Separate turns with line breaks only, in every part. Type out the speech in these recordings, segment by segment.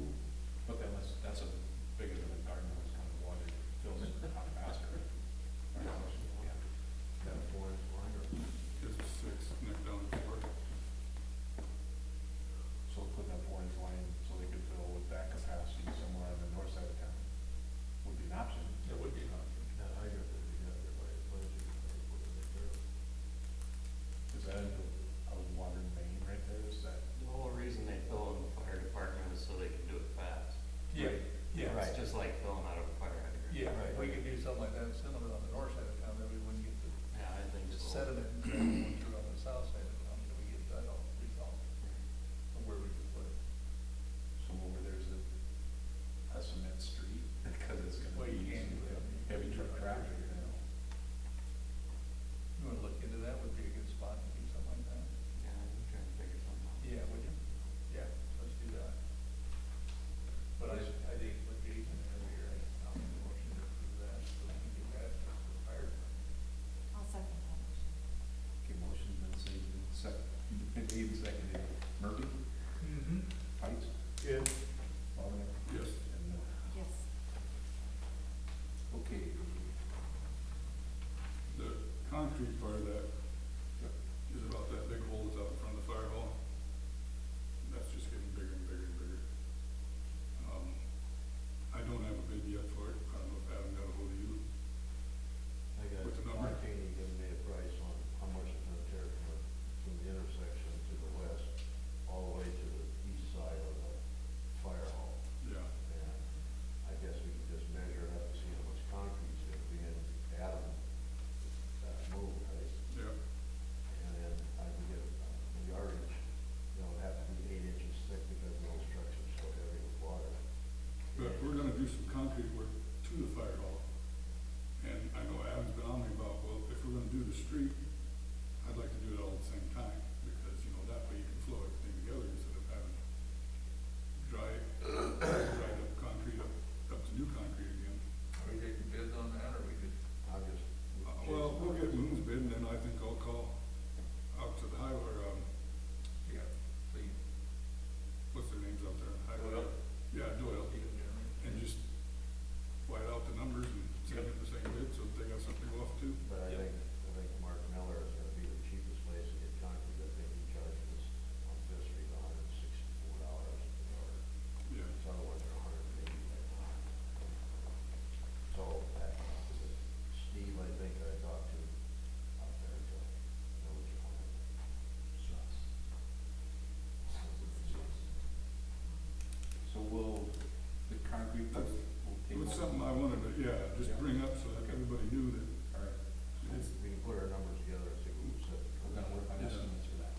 uh,
just like filling out a fire hydrant.
Yeah,
Right.
we could do something like that, similar on the north side of town, that we wouldn't get the
Yeah, I think so.
sediment and stuff going through on the south side of town, that we get that all resolved, of where we could put it.
So over there's a, a cement street, because it's
Well,
gonna
you
be
can't do that.
heavy truck traffic, you know.
You wanna look into that, would be a good spot to do something like that.
Yeah, I'm trying to figure something out.
Yeah, would you? Yeah, let's do that. But I, I think with Jason over here, I'll make a motion to approve that, so we can do that for the fire.
I'll second that motion.
Okay, motion's been seconded, seconded, Dave seconded, Murphy,
Mm-hmm.
Pikes,
Yeah.
Bobbin.
Yes.
And Miller.
Yes.
Okay,
The concrete part of that is about that big hole that's out in front of the fire hall. And That's just getting bigger and bigger and bigger. Um, I don't have a bid yet for it. I don't know if Adam got ahold of you.
I got
What's the number?
Martini giving me a price on how much it's gonna tear from the, from the intersection to the west, all the way to the east side of the fire hall.
Yeah,
And I guess we can just measure it up and see how much concrete's gonna be in Adam, that move, right?
yeah.
And then I can get uh, the yardage, you know, it'd have to be eight inches thick because the old structure's so heavy with water.
But we're gonna do some concrete work to the fire hall. And I know Adam's been on me about, well, if we're gonna do the street, I'd like to do it all at the same time, because, you know, that way you can flow everything together instead of having dry, dried up concrete up, up to new concrete again.
Are we taking bids on that, or we could?
I'll just.
Uh, Well, we'll get Moon's bid, and then I think I'll call out to the highway, or, um,
Yeah. Please.
what's their names out there? Highway-
Doyle.
Yeah, Doyle, and just white out the numbers and send them the same bid, so they got something off too.
But I
Yep.
think, I think Mark Miller is gonna be the cheapest place to get concrete, I think he charges on Fifth Street a hundred and sixty-four dollars an hour.
Yeah.
His other ones are a hundred and eighty right now. So, that, Steve, I think I talked to out there, so, I know what you want. Sucks.
so will the concrete, will
It
take.
was something I wanted to, yeah, just
Yeah.
bring up so that
Okay.
everybody knew that
All right,
it's,
We can put our numbers together and see who said.
we're gonna work on estimates for that.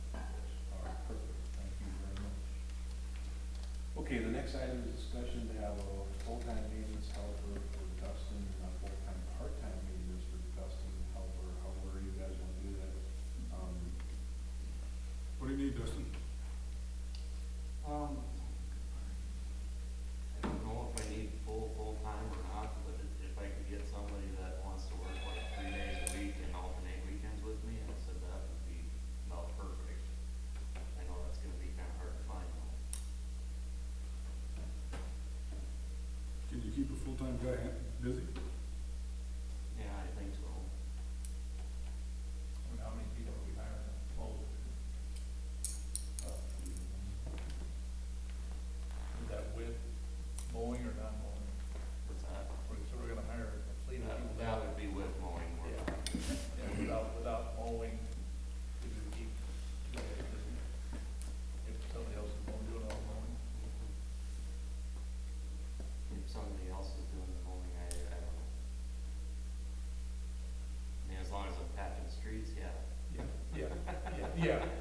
All right, perfect, thank you very much. Okay, the next item is discussion to have a full-time maintenance helper for Dustin, and a full-time, part-time maintenance for Dustin helper, however you guys wanna do that. Um,
what do you need, Dustin?
Um, I don't know if I need full, full-time or not, but if- if I could get somebody that wants to work like three days a week and alternate weekends with me, I said that would be about perfect. I know that's gonna be kinda hard to find though.
Can you keep a full-time guy ha- busy?
Yeah, I think so.
I mean, how many people are we hiring? Twelve. Is that with mowing or not mowing?
What's that?
Or- So we're gonna hire a fleet of people?
That, that would be with mowing work.
Yeah. Yeah, without, without mowing, we would keep, two guys busy. if somebody else is mowing, doing all the mowing.
If somebody else is doing the mowing, I, I don't know. I mean, as long as I'm patching streets, yeah.
Yeah, Uh, yeah, yeah,